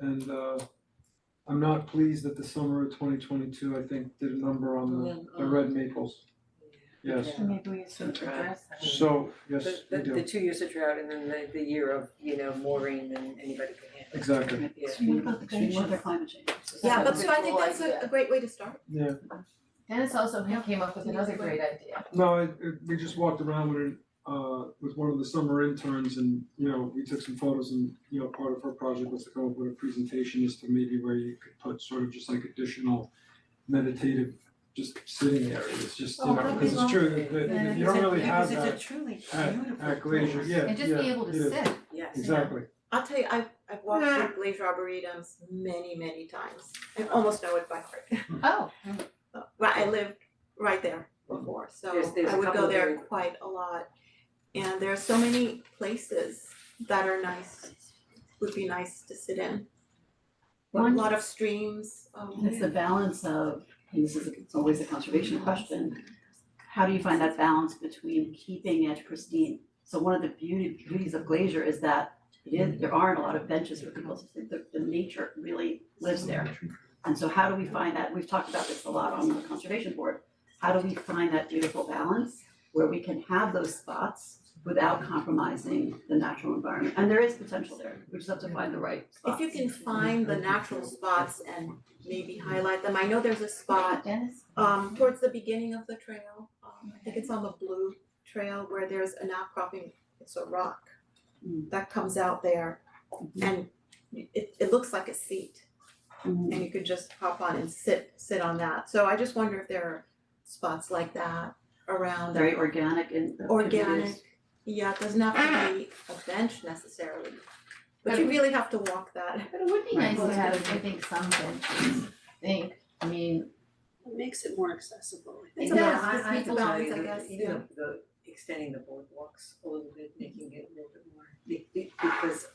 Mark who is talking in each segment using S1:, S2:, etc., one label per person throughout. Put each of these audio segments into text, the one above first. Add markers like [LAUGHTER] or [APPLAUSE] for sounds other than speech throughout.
S1: And uh I'm not pleased that the summer of twenty twenty two, I think, did a number on the the red maples. Yes,
S2: Yeah.
S3: Maybe we should
S2: That's right.
S3: address that.
S1: so, yes,
S2: The,
S1: we
S2: the, the
S1: do,
S2: two years of drought and then the, the year of, you know, Maureen and anybody can handle.
S1: exactly,
S2: Yeah.
S3: So what about the
S2: Extreme
S3: green
S2: weather,
S3: weather climate change?
S4: Yeah, but so I
S2: Cool
S4: think that's a, a
S2: idea.
S4: great way to start.
S1: yeah.
S5: Dennis also came up with another great idea.
S1: No, it it we just walked around with it, uh with one of the summer interns and, you know, we took some photos and, you know, part of her project was to come up with a presentation as to maybe where you could put sort of just like additional meditative, just sitting areas, just, you know,
S3: Oh, that'd
S1: because
S3: be
S1: it's true, that that-
S3: Then
S1: you don't really have
S2: Because
S1: that
S2: it's a truly
S1: at-
S2: beautiful
S1: at Glacier,
S2: place.
S1: yeah, yeah,
S5: And just be able
S1: it is.
S5: to sit.
S2: Yes.
S1: Exactly,
S4: I'll tell you, I've I've walked through Glacier Arboretums many, many times. I almost know it by heart.
S5: Oh,
S4: [LAUGHS] Right, I lived right there before, so
S2: There's- there's
S4: I
S2: a
S4: would
S2: couple
S4: go
S2: of
S4: there
S2: very-
S4: quite a lot. And there are so many places that are nice, would be nice to sit in. A
S3: One-
S4: lot of streams, um,
S3: It's the balance of, and this is it's always a conservation question, how do you find that balance between keeping it pristine? So one of the beauty beauties of Glacier is that it is, there aren't a lot of benches for people to sit, the the nature really lives there. And so how do we find that, we've talked about this a lot on the conservation board, how do we find that beautiful balance where we can have those spots without compromising the natural environment? And there is potential there, we just have to find the right
S4: if
S3: spots.
S4: you can find the natural spots and maybe highlight them. I know there's a spot
S5: Dennis?
S4: um towards the beginning of the trail, um I think it's on the blue trail where there's an outcropping, it's a rock
S3: Mm.
S4: that comes out there and it it looks like a seat
S3: Mhm.
S4: and you could just hop on and sit sit on that. So I just wonder if there are spots like that around that
S3: Very organic and.
S4: organic. Yeah, it doesn't have to be a bench necessarily, but you really have to walk
S5: [LAUGHS]
S4: that.
S5: But it would be
S3: Right.
S5: nice to have, I think, some benches, I think, I mean,
S6: It makes it more accessible, I
S4: It's
S6: think.
S4: a
S5: Yeah,
S4: balance,
S5: I-
S4: it's
S5: I
S4: a
S5: will
S2: tell
S4: balance,
S2: you
S4: I
S2: that
S4: guess, yeah.
S2: Even the, the extending the boardwalks a little bit, making it a little bit more, be- be- because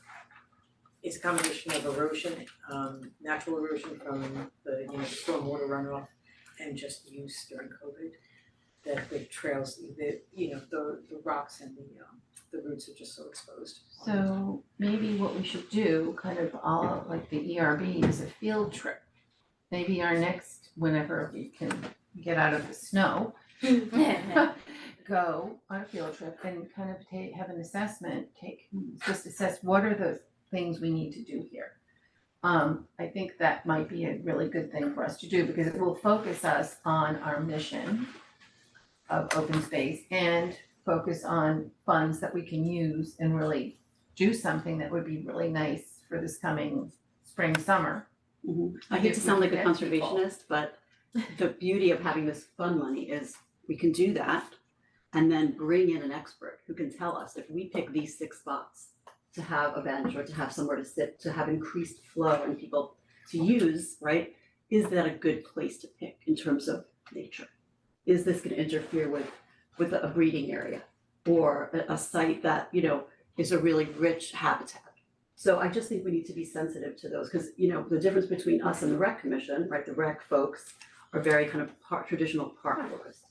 S2: it's a combination of erosion, um, natural erosion from the, you know, stormwater runoff and just use during COVID. That the trails, the, you know, the, the rocks and the, um, the roots are just so exposed.
S5: so maybe what we should do, kind of all like the ERB is a field trip. Maybe our next, whenever we can get out of the snow, go on a field trip and kind of take, have an assessment, take, just assess what are the things we need to do here. Um, I think that might be a really good thing for us to do because it will focus us on our mission of open space and focus on funds that we can use and really do something that would be really nice for this coming spring, summer.
S3: Mhm. I hate to sound like a
S5: Connect people.
S3: conservationist, but the beauty of having this fund money is we can do that and then bring in an expert who can tell us if we pick these six spots to have a bench or to have somewhere to sit, to have increased flow and people to use, right? Is that a good place to pick in terms of nature? Is this gonna interfere with with a breeding area or a a site that, you know, is a really rich habitat? So I just think we need to be sensitive to those, because you know, the difference between us and the rec commission, right, the rec folks are very kind of park, traditional park forests.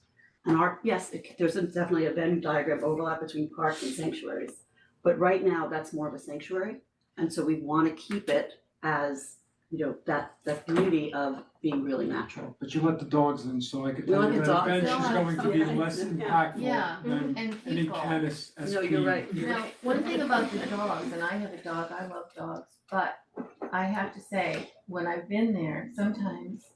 S3: And our, yes, it- there's a- definitely a Venn diagram overlap between parks and sanctuaries, but right now, that's more of a sanctuary. And so we wanna keep it as, you know, that that beauty of being really natural.
S1: but you let the dogs in, so I could
S3: We
S1: tell
S3: let
S1: you
S3: the
S1: that a
S3: dogs
S1: bench
S5: in.
S1: is going to be
S3: Yeah.
S1: less
S3: Yeah.
S1: impactful
S5: Yeah.
S1: than
S5: And
S1: any
S5: people.
S1: canis SP.
S3: No, you're right.
S5: Now, one thing about the dogs, and I have a dog, I love dogs, but I have to say, when I've been there, sometimes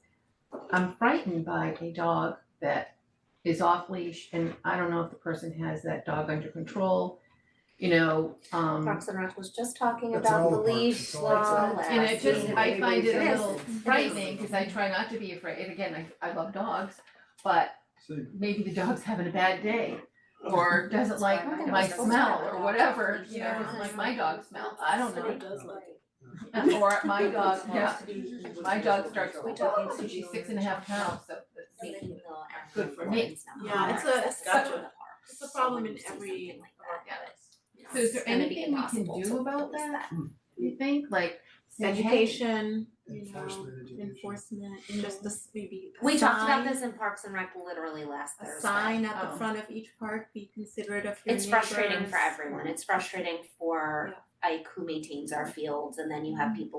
S5: I'm frightened by a dog that is off leash and I don't know if the person has that dog under control, you know, um.
S7: Parks and Rec was just talking
S8: That's
S7: about the
S8: all parks,
S7: leash
S8: it's all parks.
S7: law
S5: And it just, I find it a
S7: Yes.
S5: little frightening, cause I try not to be afraid, and again, I I love dogs, but
S1: See,
S5: maybe the dog's having a bad day. Or doesn't like
S7: why oh
S5: my
S7: my dog doesn't
S5: smell
S7: like
S5: or
S7: dogs.
S5: whatever, you know,
S7: Yeah.
S5: doesn't like my dog smell, I don't know.
S7: Somebody does like it.
S5: [LAUGHS] Or my dog, yeah, my dog starts,
S7: We
S5: we
S7: talk
S5: dog needs to be six and a half pounds, so that's me.
S7: Making the
S5: Good for me.
S4: Yeah, it's a- it's
S7: Accessible
S4: such
S7: in the park.
S4: It's a problem in
S7: Someone sees
S4: every
S7: something like
S4: of our
S7: that, yeah, it's-
S5: So is there
S7: it's gonna be
S5: anything we can
S7: impossible
S5: do
S7: to
S5: about
S7: police
S5: that? You think, like, say, hey,
S4: education, you know,
S8: Enforcement, education.
S4: enforcement, just this maybe a
S7: We talked about
S4: sign-
S7: this in Parks and Rec literally last Thursday.
S4: A sign at
S5: Oh.
S4: the front of each park, be considerate of your
S7: It's frustrating for
S4: neighbors.
S7: everyone. It's frustrating for Ike who maintains our fields and then you have people